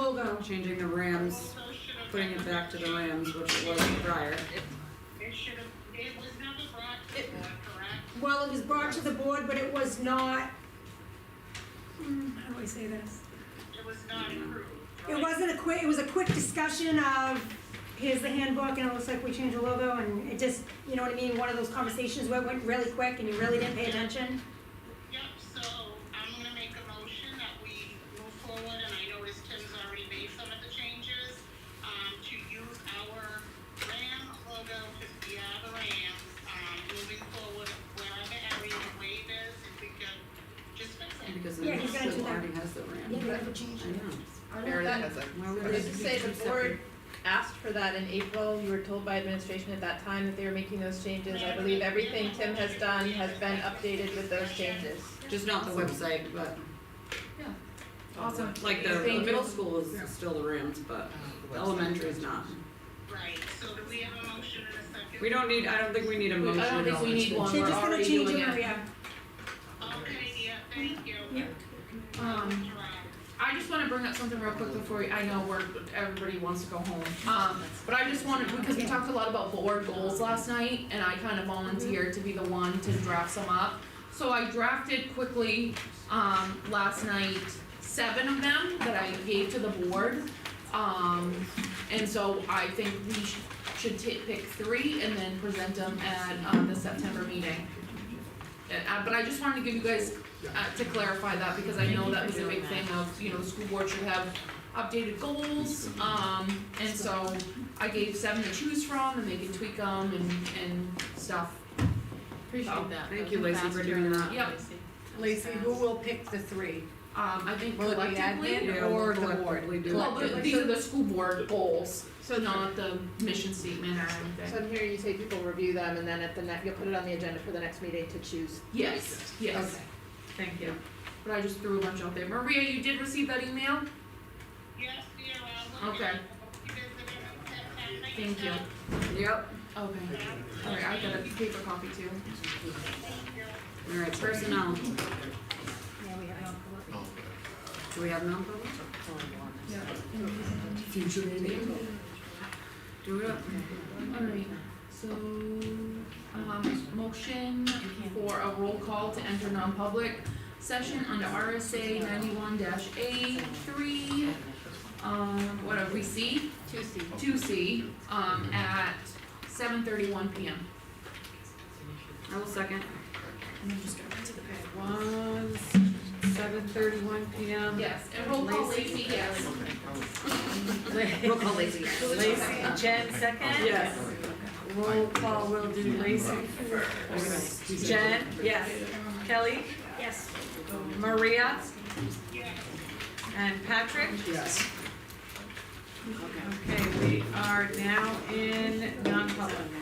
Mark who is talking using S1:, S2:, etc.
S1: also changing the Rams, putting it back to the Rams, which it was prior.
S2: It should have, it was never brought to
S3: It-
S2: the board, correct?
S3: Well, it was brought to the board, but it was not, hmm, how do I say this?
S2: It was not
S1: Mm-hmm.
S2: approved,
S3: It
S2: right?
S3: wasn't a quick, it was a quick discussion of, here's the handbook, and it looks like we changed the logo, and it just, you know what I mean, one of those conversations where it went really quick and you really didn't pay attention.
S2: Yep, so I'm gonna make a motion that we move forward, and I noticed Tim's already made some of the changes, um, to use our Ram logo to be our Rams, um, moving forward wherever area the wave is, if we could just fix it.
S1: Because
S3: Yeah,
S1: the
S3: he's gonna do
S1: still
S3: that.
S1: already has the Rams.
S3: never changed
S1: I know.
S4: I
S1: Fair
S4: don't
S1: enough.
S4: that,
S1: Why would
S4: I
S1: they
S4: was just
S1: be
S4: say
S1: two
S4: the board
S1: separate?
S4: asked for that in April, you were told by administration at that time that they were making those changes. I believe everything Tim has done has been updated with those changes.
S1: Just not the website, but
S4: Awesome.
S1: like the, the
S4: Thank
S1: middle
S4: you.
S1: school is still the Rams, but the elementary is not.
S2: Right, so do we have a motion and a second?
S1: We don't need, I don't think we need a
S4: don't
S1: motion.
S4: think we
S1: on
S4: need
S1: this.
S4: one.
S3: They're just gonna
S4: already
S3: change
S4: doing
S3: it,
S4: it.
S3: yeah.
S2: Okay, yeah, thank you.
S3: Yeah.
S5: Um,
S2: Right.
S5: I just wanna bring up something real quick before, we- I know we're, everybody wants to go home, um, but I just wanted, because we talked a lot about board goals last night, and I kinda volunteered to be the one to draft some up. So I drafted quickly, um, last night, seven of them that I gave to the board. Um, and so I think we should, should ta- pick three and then present them at, um, the September meeting. And, uh, but I just wanted to give you guys uh, to clarify that, because I know that was a big thing of, you know, the school board should have updated goals, um, and so I gave seven to choose from, and they can tweak them and, and stuff.
S6: Appreciate that.
S1: Thank you, Lacey, for doing that.
S5: Yep, um,
S6: Lacey, who will pick the three?
S5: I think
S6: Will it be
S5: collectively,
S6: admin?
S1: Yeah, we'll
S6: Or the board.
S1: collectively do it.
S5: well, the-
S6: Collective.
S5: these are the school board goals,
S4: So
S5: not the mission statement or anything.
S4: So I'm hearing you say people review them and then at the next, you'll put it on the agenda for the next meeting to choose.
S5: Yes, yes,
S4: Okay.
S5: thank you, but I just threw a bunch out there. Maria, you did receive that email?
S2: Yes, we are all looking.
S5: Okay. Thank you.
S1: Yep,
S5: Okay, alright, I got a paper copy too.
S1: alright,
S3: Yeah,
S1: personnel,
S3: we have.
S1: do we have non-public?
S7: Future meeting?
S1: Do it up.
S5: Alright, so, um, motion for a roll call to enter non-public session under RSA ninety-one dash A three, um, what are we, C?
S6: Two C.
S5: Two C, um, at seven thirty-one PM.
S1: I will second.
S6: And I'm just gonna to the page. One, seven thirty-one PM.
S5: Yes, and roll call Lacey, yes.
S1: Roll call Lacey.
S6: Lacey, Jen second?
S1: Yes.
S6: Roll call will do Lacey first. Jen? Yes. Kelly?
S3: Yes.
S6: Maria?
S2: Yes.
S6: And Patrick?
S7: Yes.
S6: Okay, we are now in non-public.